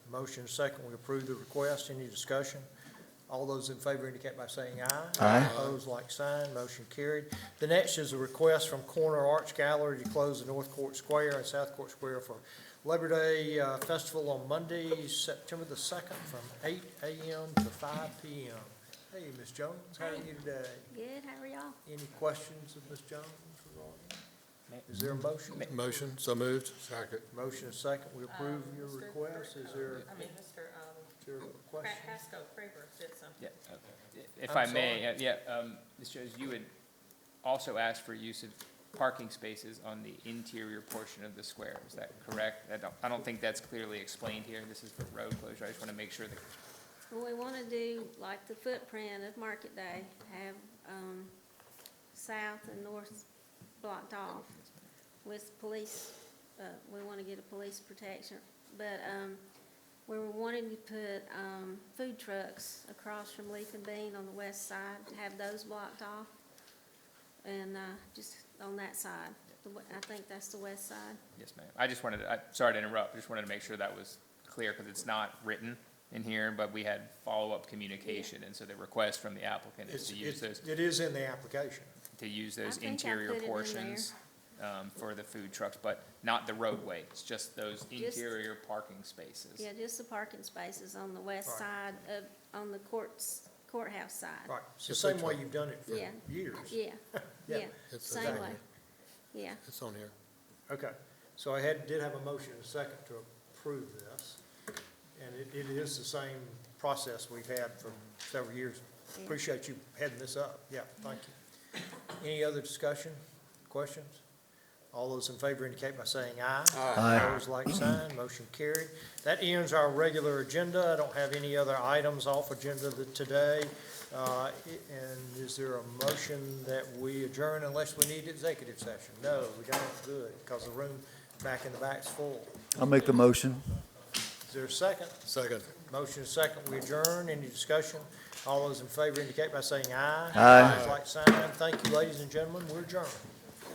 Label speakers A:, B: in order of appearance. A: Motion is second, we approve the request. Any discussion? All those in favor indicate by saying aye.
B: Aye.
A: Opposed, like sign, motion carried. The next is a request from Corner Arts Gallery to close the North Court Square and South Court Square for Labor Day uh, Festival on Monday, September the second, from eight AM to five PM. Hey, Ms. Jones, how are you today?
C: Good, how are y'all?
A: Any questions of Ms. Jones? Is there a motion?
D: Motion, so moved. Second.
A: Motion is second, we approve your
E: Mr.
A: request. Is there,
E: Um, I mean, Mr. um,
A: is there a
E: Cra-
A: question?
E: Casco Craver said something.
F: Yeah, okay. If
A: I'm
F: I may, uh, yeah, um, Ms. Jones, you had also asked for use of parking spaces on the interior portion of the square, is that correct? I don't, I don't think that's clearly explained here, this is for road closure, I just want to make sure that
C: Well, we want to do like the footprint of Market Day, have, um, south and north blocked off with police, uh, we want to get a police protection. But, um, we were wanting to put, um, food trucks across from Leaf and Bean on the west side, have those blocked off. And, uh, just on that side, the, we- I think that's the west side.
F: Yes, ma'am. I just wanted, to- I, sorry to interrupt, just wanted to make sure that was clear, because it's not written in here, but we had follow-up communication, and so the request from the applicant is
A: It's-
F: to use
A: it's-
F: those,
A: It is in the application.
F: to use
C: I
F: those
C: think I
F: interior
C: put it in
F: portions um, for the food trucks, but not the roadway, it's just those interior parking spaces.
C: Yeah, just the parking spaces on the west
A: Right.
C: side of, on the courts, courthouse side.
A: Right, it's the same way you've done it for
C: Yeah.
A: years.
C: Yeah,
A: Yeah,
C: yeah,
D: it's
C: same
A: exactly.
C: way. Yeah,
D: It's on here.
A: Okay, so I had, did have a motion and a second to approve this, and it, it is the same process we've had for several years.
C: Yeah.
A: Appreciate you heading this up, yeah, thank you. Any other discussion, questions? All those in favor indicate by saying aye.
B: Aye.
A: Opposed, like sign, motion carried. That ends our regular agenda, I don't have any other items off agenda th- today. Uh, i- And is there a motion that we adjourn unless we need executive session? No, we don't, good, because the room back in the back's full.
B: I'll make the motion.
A: Is there a second?
D: Second.
A: Motion is second, we adjourn, any discussion? All those in favor indicate by saying aye.
B: Aye.
A: Opposed, Like sign, thank you, ladies and gentlemen, we're adjourned.